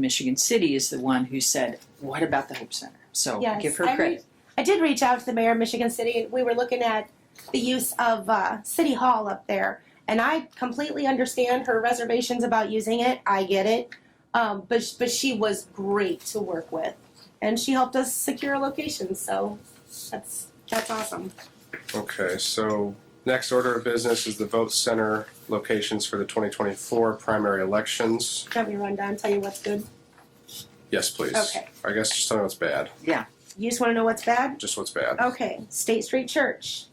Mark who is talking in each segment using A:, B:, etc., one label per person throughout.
A: Michigan City is the one who said, "What about the Hope Center?" So
B: Yes,
A: give her
B: I re-
A: credit.
B: I did reach out to the mayor of Michigan City, and we were looking at the use of uh, City Hall up there. And I completely understand her reservations about using it. I get it, um, but sh- but she was great to work with, and she helped us secure a location. So that's that's awesome.
C: Okay, so next order of business is the vote center locations for the 2024 primary elections.
B: Let me run down, tell you what's good.
C: Yes, please.
B: Okay,
C: I guess just tell me what's bad,
B: you just want to know what's bad.
C: just what's bad.
B: Okay, State Street Church,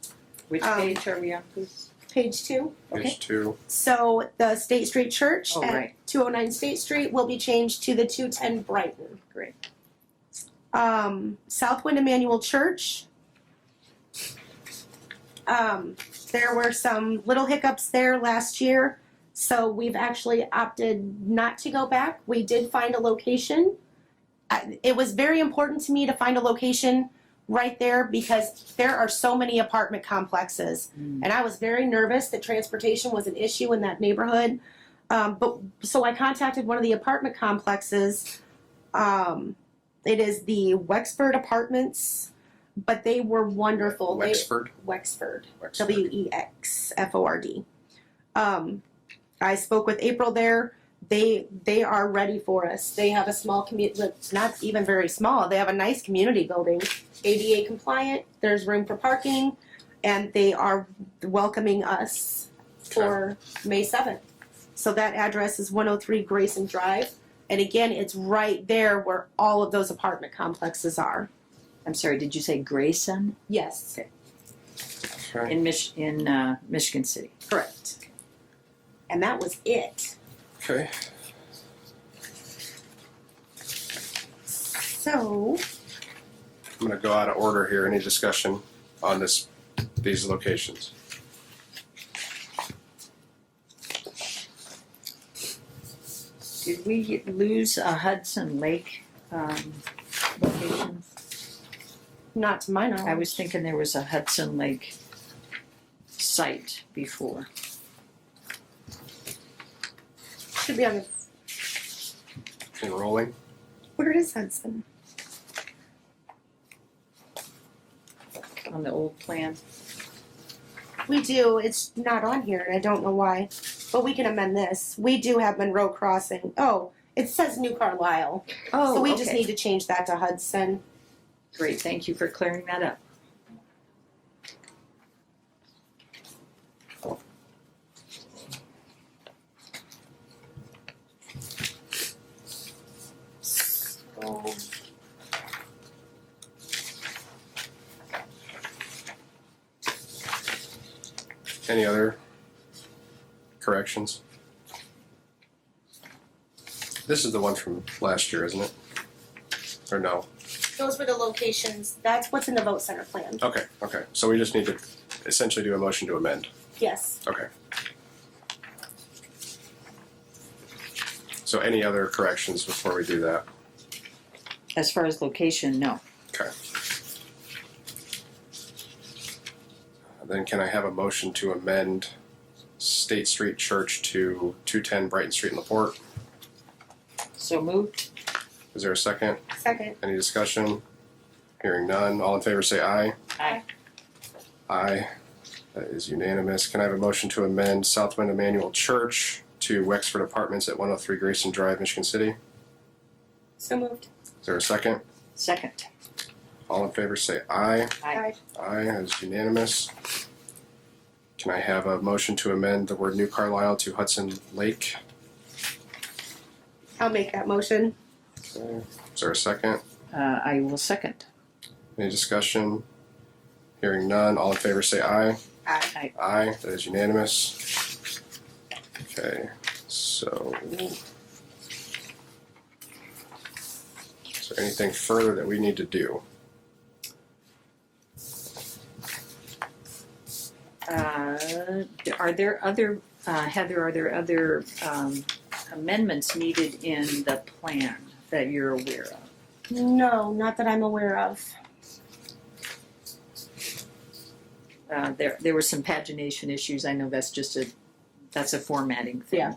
D: Which
B: Um,
D: page are we on, please?
B: page two.
C: Page two,
B: So the State Street Church
A: Oh,
B: at
A: right.
B: 209 State Street will be changed to the 210 Brighton.
A: Great.
B: Um, Southwind Emmanuel Church. Um, there were some little hiccups there last year, so we've actually opted not to go back. We did find a location. I, it was very important to me to find a location right there because there are so many apartment complexes
A: Mm.
B: and I was very nervous that transportation was an issue in that neighborhood. Um, but so I contacted one of the apartment complexes. Um, it is the Wexford Apartments, but they were wonderful. They-
C: Wexford.
B: Wexford.
C: Wexford.
B: W E X F O R D. Um, I spoke with April there. They they are ready for us. They have a small community, not even very small. They have a nice community building, ADA compliant. There's room for parking, and they are welcoming us for May seventh. So that address is 103 Grayson Drive, and again, it's right there where all of those apartment complexes are.
A: I'm sorry. Did you say Grayson
B: Yes,
C: Okay.
A: in Mich- in uh, Michigan City?
B: correct. And that was it.
C: Okay,
B: So.
C: I'm gonna go out of order here. Any discussion on this, these locations?
A: Did we lose a Hudson Lake um, location?
B: Not to my knowledge.
A: I was thinking there was a Hudson Lake site before.
B: should be on the
C: Enrolling?
B: where is Hudson?
A: On the old plan,
B: We do. It's not on here, and I don't know why. But we can amend this. We do have Monroe Crossing. Oh, it says New Carlisle.
A: Oh,
B: so we
A: okay.
B: just need to change that to Hudson.
A: great. Thank you for clearing that up.
B: So
C: Any other corrections? This is the one from last year, isn't it? Or no?
B: those were the locations. That's what's in the vote center plan.
C: Okay, okay. So we just need to essentially do a motion to amend.
B: Yes.
C: So any other corrections before we do that?
A: As far as location, no.
C: Then can I have a motion to amend State Street Church to two ten Brighton Street in Laporte?
A: So moved.
C: Is there a second?
B: Second.
C: Any discussion? Hearing none. All in favor say aye.
A: Aye.
C: Aye. That is unanimous. Can I have a motion to amend Southwind Emmanuel Church to Wexford Apartments at one oh three Grayson Drive, Michigan City?
B: So moved.
C: Is there a second?
A: Second.
C: All in favor say aye.
B: Aye.
C: Aye, that is unanimous. Can I have a motion to amend the word New Carlisle to Hudson Lake?
B: I'll make that motion.
C: Okay. Is there a second?
A: Uh, I will second.
C: Any discussion? Hearing none, all in favor say aye.
B: Aye.
C: Aye, that is unanimous. Okay, so. Is there anything further that we need to do?
A: Uh, Are there other, uh, Heather, are there other um, amendments needed in the plan that you're aware of?
B: No, not that I'm aware of.
A: Uh, There, there were some pagination issues, I know that's just a, that's a formatting thing.
B: Yeah.